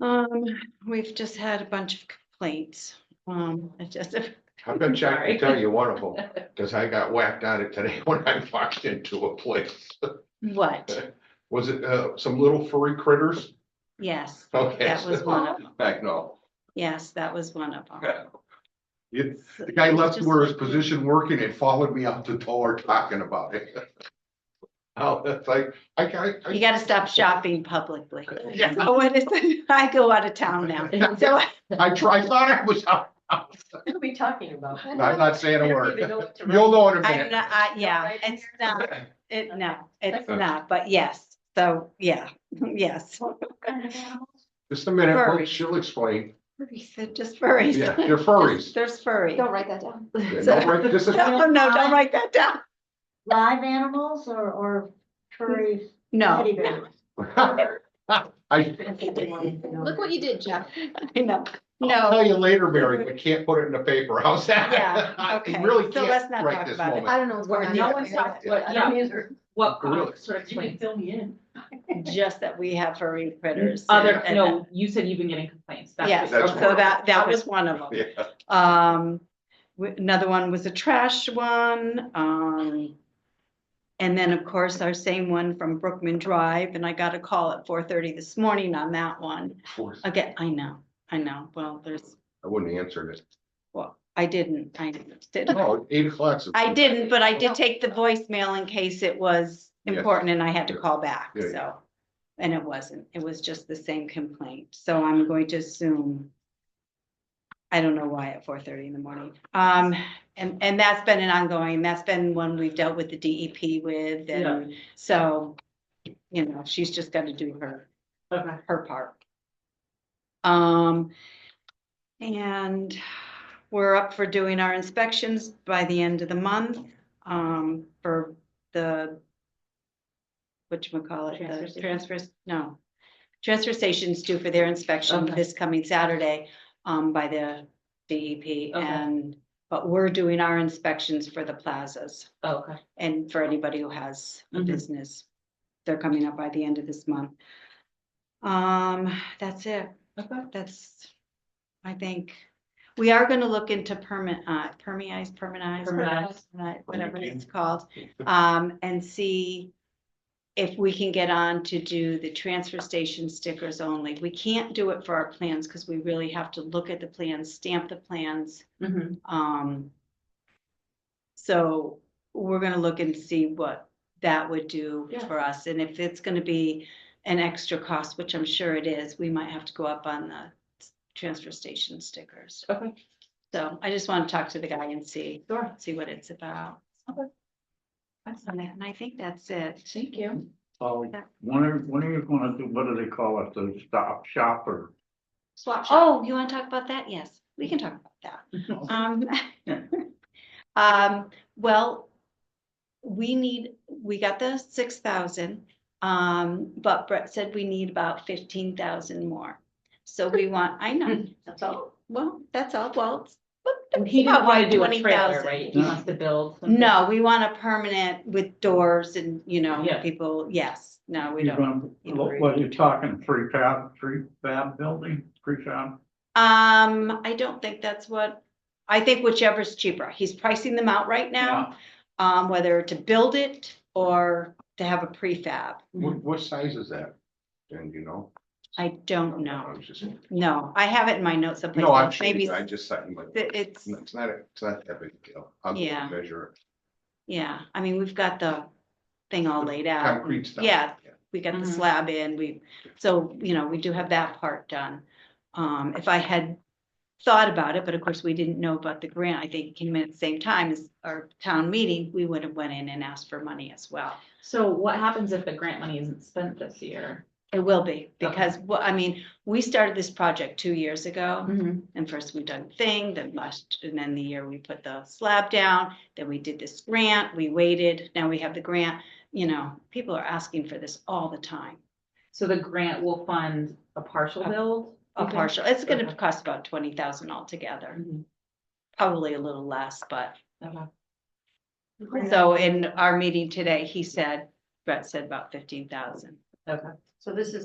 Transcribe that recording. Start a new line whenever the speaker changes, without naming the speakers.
Um, we've just had a bunch of complaints. Um, I just,
I'm gonna check
Sorry.
and tell you one of them, because I got whacked on it today when I walked into a place.
what?
Was it uh some little furry critters?
Yes,
Okay.
that was one of them.
Back no.
Yes, that was one of them.
You- The guy left where his position working and followed me out the door talking about it. Oh, that's like, I can't.
You
I-
gotta stop shopping publicly.
Yeah.
So what is it? I go out of town now. So I-
I tried, thought I was out.
What are we talking about?
I'm not saying a word. You'll
You'll
know in a
I'm
minute.
not, I, yeah,
right in
it's not, it, no, it's
Okay.
not, but yes. So, yeah, yes.
Just a minute,
Furry.
folks, she'll explain.
They're Just furries.
Yeah, they're furries.
There's furry.
Don't write that down.
Yeah,
So-
don't break- This is,
No, no, don't write that down.
Live animals or, or furry
No,
teddy
no.
bears?
I,
Look what you did, Jeff.
I know.
I'll
No,
tell you later, Mary, we can't put it in the paper, how's that?
Yeah,
I
okay.
Really
So let's
can't
not
right
talk
this
about it.
moment.
I don't know what's going
Where
on.
no one's talking, what,
Yeah.
yeah, what, uh,
Really?
sort of, you can fill me in.
just that we have furry critters.
Other,
and- and-
no, you said you've been getting complaints. That's
Yeah,
just-
That's
so that, that was one of them.
Yeah,
Um, w- another one was a trash one, um. And then, of course, our same one from Brookman Drive, and I got a call at four thirty this morning on that one.
of course.
Again, I know, I know, well, there's,
I wouldn't answer it.
well, I didn't, I didn't.
No, eight o'clock.
I didn't, but I did take the voicemail in case it was
Yes.
important and I had to
Yeah.
call back,
Yeah, yeah.
so. And it wasn't, it was just the same complaint, so I'm going to assume. I don't know why at four thirty in the morning, um, and, and that's been an ongoing, that's been one we've dealt with the DEP with and so. You know, she's just gotta do her,
Okay.
her part. Um, and we're up for doing our inspections by the end of the month, um, for the whatchamacallit, the
Transfer
transfers, no. Transfer stations due for their inspection
Okay.
this coming Saturday, um, by the DEP
Okay.
and, but we're doing our inspections for the plazas
Okay.
and for anybody who has a
Mhm.
business. They're coming up by the end of this month. Um, that's it
Okay.
that's, I think, we are gonna look into permit, uh, permeize, permanize,
Permanize.
permanite, whatever it's called. Um, and see if we can get on to do the transfer station stickers only. We can't do it for our plans, cause we really have to look at the plans, stamp the plans,
Mhm.
um. So we're gonna look and see what that would do
Yeah.
for us, and if it's gonna be an extra cost, which I'm sure it is, we might have to go up on the s- transfer station stickers.
Okay.
So I just wanna talk to the guy and see,
Sure.
see what it's about.
Okay.
And I- and I think that's it.
Thank you.
Oh,
Yeah.
when are, when are you gonna do, what do they call it, the stop shop or?
Swap shop.
Oh, you wanna talk about that? Yes, we can talk about that. Um, um, well, we need, we got the six thousand, um, but Brett said we need about fifteen thousand more. So we want, I know,
That's
Oh,
all.
well, that's all, well. it's-
He didn't want to do a
Twenty
trailer,
thousand.
right? He wants to build. something.
No, we want a permanent with doors and, you know,
Yeah.
people, yes, no, we
You're
don't.
gonna, what, what are you talking, prefab, prefab building, prefab?
Um, I don't think that's what, I think whichever's cheaper. He's pricing them out right now, um, whether to build it or to have a prefab.
What, what size is that? And you know?
I don't
I
know.
was just-
No, I have it in my notes someplace.
No, I'm
else.
sure,
Maybe
I just, I, like,
th- it's,
it's not, a- it's not that big a deal. I'll
Yeah.
measure it.
yeah, I mean, we've got the thing all laid out.
concrete stuff.
yeah. We got the
Mhm.
slab in, we, so, you know, we do have that part done. Um, if I had thought about it, but of course, we didn't know about the grant. I think it came in at the same time as our town meeting, we would have went in and asked for money as well.
So what happens if the grant money isn't spent this year?
It will be,
Okay.
because, wha- I mean, we started this project two years ago.
Mhm.
And first we done thing, then last, and then the year we put the slab down, then we did this grant, we waited, now we have the grant. You know, people are asking for this all the time,
So the grant will fund a partial
A- a
build? Uh, Okay.
partial, it's gonna
Okay.
cost about twenty thousand altogether,
Mhm.
probably a little less, but.
Okay.
So in our meeting today, he said, Brett said about fifteen thousand.
Okay.
So this is